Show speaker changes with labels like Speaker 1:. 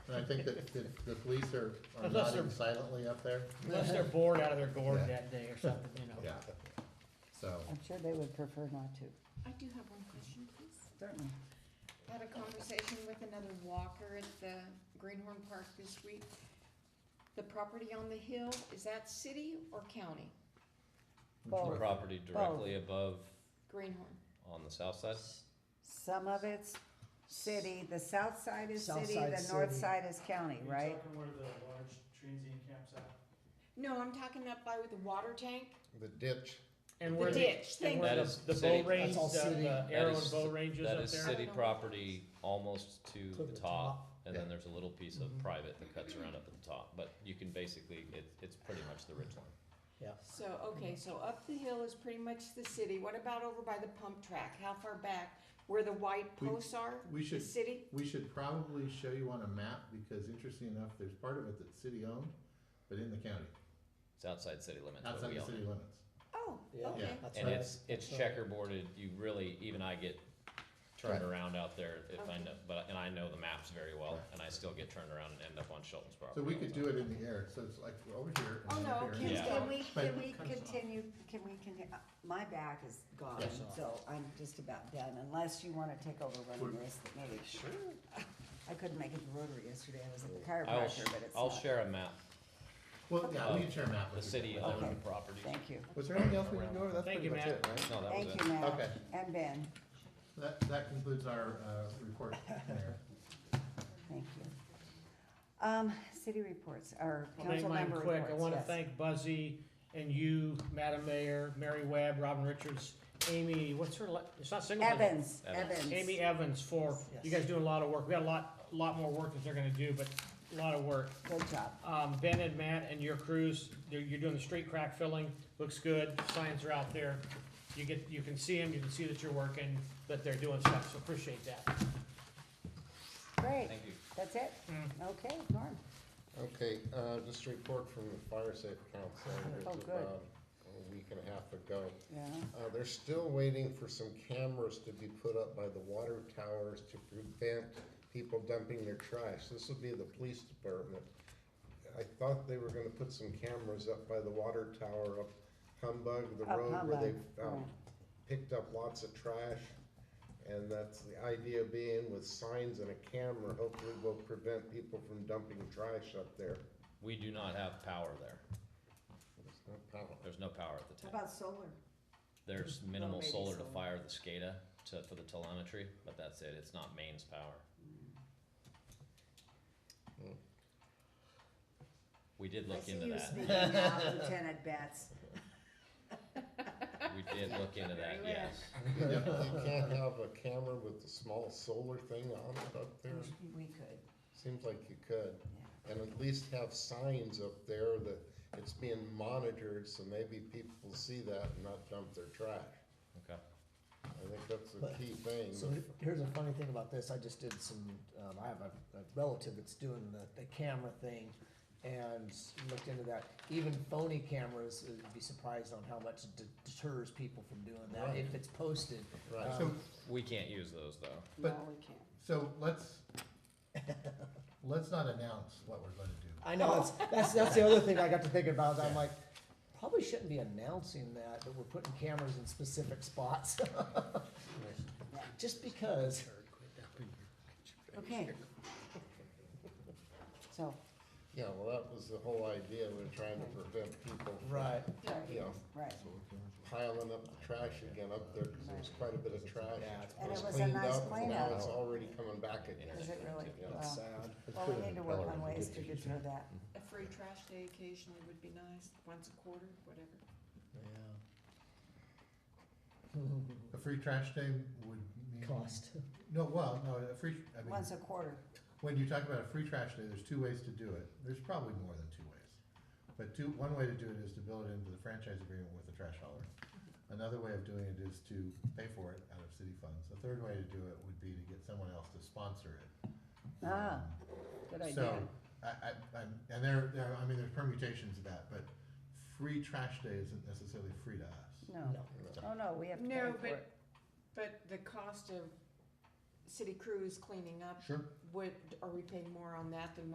Speaker 1: And I think that the, the police are, are
Speaker 2: Unless they're-
Speaker 1: nodding silently up there.
Speaker 2: Unless they're bored out of their gourd
Speaker 1: Yeah.
Speaker 2: that day or something, you know.
Speaker 1: Yeah. So,
Speaker 3: I'm sure they would prefer not to.
Speaker 4: I do have one question, please.
Speaker 3: Certainly.
Speaker 4: Had a conversation with another walker at the Greenhorn Park this week. The property on the hill, is that city or county?
Speaker 3: Both.
Speaker 5: Property directly above
Speaker 4: Greenhorn.
Speaker 5: on the south side?
Speaker 3: Some of it's city, the south side is
Speaker 2: South
Speaker 3: city,
Speaker 2: side
Speaker 3: the north
Speaker 2: city.
Speaker 3: side is county, right?
Speaker 6: talking where the large transient camps at?
Speaker 4: No, I'm talking up by with the water tank,
Speaker 1: the ditch,
Speaker 2: And
Speaker 4: the
Speaker 2: where the,
Speaker 4: ditch,
Speaker 2: and
Speaker 4: thank
Speaker 2: where
Speaker 5: That
Speaker 4: you.
Speaker 2: the,
Speaker 5: is
Speaker 2: the
Speaker 5: city.
Speaker 2: bow range,
Speaker 1: That's all city.
Speaker 2: the, the
Speaker 5: That
Speaker 2: uh, arrow
Speaker 5: is-
Speaker 2: and bow ranges
Speaker 5: That
Speaker 2: up
Speaker 5: is
Speaker 2: there.
Speaker 5: city property almost to
Speaker 2: To
Speaker 5: the
Speaker 2: the
Speaker 5: top,
Speaker 2: top.
Speaker 5: and then
Speaker 1: Yeah.
Speaker 5: there's a little piece of
Speaker 3: Mm-hmm.
Speaker 5: private that cuts around up at the top, but you can basically, it, it's pretty much the ridge line.
Speaker 4: So, okay, so up the hill is pretty much the city. What about over by the pump track? How far back? Where the white
Speaker 1: We-
Speaker 4: posts are?
Speaker 1: we
Speaker 4: The
Speaker 1: should,
Speaker 4: city?
Speaker 1: we should probably show you on a map, because interesting enough, there's part of it that's city-owned, but in the county,
Speaker 5: It's outside city limits, but
Speaker 1: outside
Speaker 5: we
Speaker 1: the
Speaker 5: own
Speaker 1: city
Speaker 5: it.
Speaker 1: limits.
Speaker 4: Oh,
Speaker 2: Yeah.
Speaker 4: okay.
Speaker 2: That's
Speaker 5: And
Speaker 2: right.
Speaker 5: it's, it's checkerboarded, you really, even I get turned around out there if I
Speaker 4: Okay.
Speaker 5: know, but, and I know the maps very well,
Speaker 1: Right.
Speaker 5: and I still get turned around and end up on Shelton's property.
Speaker 1: So we
Speaker 5: all
Speaker 1: could
Speaker 5: the
Speaker 1: do
Speaker 5: time.
Speaker 1: it in the air, so it's like, we're over here.
Speaker 4: Oh,
Speaker 1: and
Speaker 4: no,
Speaker 1: over here.
Speaker 4: Ken's
Speaker 5: Yeah.
Speaker 3: Can we,
Speaker 1: But-
Speaker 3: can we continue, can we continue, uh, my back is gone,
Speaker 1: Yes.
Speaker 3: so I'm just about done, unless you wanna take over running the rest of the meeting. Sure. I couldn't make it to Rotary yesterday, I was at the
Speaker 5: I'll, sh-
Speaker 3: chiropractor, but it's not.
Speaker 5: I'll share a map,
Speaker 1: Well, yeah, we
Speaker 5: of
Speaker 1: can share a map
Speaker 5: the
Speaker 1: with you.
Speaker 5: city
Speaker 1: Okay.
Speaker 3: Okay.
Speaker 5: owned properties.
Speaker 3: Thank you,
Speaker 1: Was there anything else we didn't go over? That's
Speaker 2: Thank
Speaker 1: pretty
Speaker 2: you,
Speaker 1: much
Speaker 2: Matt.
Speaker 1: it, right?
Speaker 5: No, that was
Speaker 3: thank
Speaker 5: it.
Speaker 3: you, Matt,
Speaker 1: Okay.
Speaker 3: and Ben,
Speaker 1: That, that concludes our, uh, report, Mayor.
Speaker 3: thank you. Um, city reports, or
Speaker 2: I'll make
Speaker 3: council
Speaker 2: mine
Speaker 3: member
Speaker 2: quick.
Speaker 3: reports,
Speaker 2: I wanna
Speaker 3: yes.
Speaker 2: thank Buzzy and you, Madam Mayor, Mary Webb, Robin Richards, Amy, what's her, la- it's not Singleton.
Speaker 3: Evans,
Speaker 5: Evans.
Speaker 3: Evans.
Speaker 2: Amy Evans for, you guys doing a lot of work. We got a lot, lot more work that they're gonna do, but a lot of work.
Speaker 3: Good job.
Speaker 2: Um, Ben and Matt and your crews, they're- you're doing the street crack filling, looks good, signs are out there. You get, you can see them, you can see that you're working, that they're doing stuff, so appreciate that.
Speaker 3: Great,
Speaker 5: Thank you.
Speaker 3: that's it?
Speaker 1: Mm.
Speaker 3: Okay, Norm.
Speaker 7: Okay, uh, just a report from the fire safe council. It was
Speaker 3: Oh, good.
Speaker 7: about A week and a half ago.
Speaker 3: Yeah,
Speaker 7: Uh, they're still waiting for some cameras to be put up by the water towers to prevent people dumping their trash. This will be the police department. I thought they were gonna put some cameras up by the water tower up Humbug, the
Speaker 3: Up
Speaker 7: road where
Speaker 3: Humbug,
Speaker 7: they, um,
Speaker 3: right.
Speaker 7: picked up lots of trash. And that's the idea being with signs and a camera, hopefully will prevent people from dumping trash up there.
Speaker 5: We do not have power there.
Speaker 7: It's not power.
Speaker 5: There's no power at the
Speaker 3: how
Speaker 5: tank.
Speaker 3: about solar?
Speaker 5: There's minimal
Speaker 3: maybe
Speaker 5: solar to
Speaker 3: so.
Speaker 5: fire the SCADA to, for the telemetry, but that's it. It's not mains power. We did
Speaker 3: I
Speaker 5: look
Speaker 3: see
Speaker 5: into
Speaker 3: you
Speaker 5: that.
Speaker 3: speaking now, Lieutenant Betts.
Speaker 5: We did look into that,
Speaker 4: Very well.
Speaker 5: yes.
Speaker 7: You can't have a camera with the small solar thing on it up
Speaker 1: Mm.
Speaker 7: there?
Speaker 3: We could,
Speaker 7: Seems like you could.
Speaker 3: yeah.
Speaker 7: And at least have signs up there that it's being monitored, so maybe people will see that and not dump their trash.
Speaker 5: Okay.
Speaker 7: I think that's the
Speaker 8: But-
Speaker 7: key thing.
Speaker 8: So he- here's a funny thing about this, I just did some, um, I have a, a relative that's doing the, the camera thing and looked into that. Even phony cameras, uh, you'd be surprised on how much it de- deters people from doing that if it's posted.
Speaker 7: Right.
Speaker 1: So,
Speaker 5: We can't use those though.
Speaker 3: No,
Speaker 1: But-
Speaker 3: we can't.
Speaker 1: so let's, let's not announce what we're gonna do.
Speaker 8: I know, that's, that's, that's the other thing I got to thinking about, I'm like, probably shouldn't be announcing that, that we're putting cameras in specific spots. Just because.
Speaker 3: Okay. So,
Speaker 7: Yeah, well, that was the whole idea, we're trying to prevent people from,
Speaker 8: Right.
Speaker 7: you know,
Speaker 3: right,
Speaker 7: piling up the trash again up there, because there was quite a bit of trash.
Speaker 8: Yeah, it's
Speaker 7: that
Speaker 3: And it was a
Speaker 7: cleaned
Speaker 3: nice
Speaker 7: up, and Now
Speaker 3: cleanup.
Speaker 7: it's already coming back again.
Speaker 3: is it really,
Speaker 5: Yeah.
Speaker 3: well,
Speaker 8: Sad.
Speaker 3: well, we need to work on ways to deter that.
Speaker 4: A free trash day occasionally would be nice, once a quarter, whatever.
Speaker 1: A free trash day would mean.
Speaker 8: Cost.
Speaker 1: No, well, no, a free, I mean,
Speaker 3: Once a quarter,
Speaker 1: when you talk about a free trash day, there's two ways to do it. There's probably more than two ways. But two, one way to do it is to build it into the franchise agreement with the trash hauler. Another way of doing it is to pay for it out of city funds. The third way to do it would be to get someone else to sponsor it.
Speaker 3: ah,
Speaker 1: Um,
Speaker 3: good idea.
Speaker 1: So, I, I, I'm, and there, there, I mean, there's permutations of that, but free trash day isn't necessarily free to us.
Speaker 3: No, oh no, we have to pay
Speaker 4: No,
Speaker 3: for
Speaker 4: but,
Speaker 3: it.
Speaker 4: but the cost of city crew is cleaning up,
Speaker 1: Sure.
Speaker 4: would, are we paying more on that than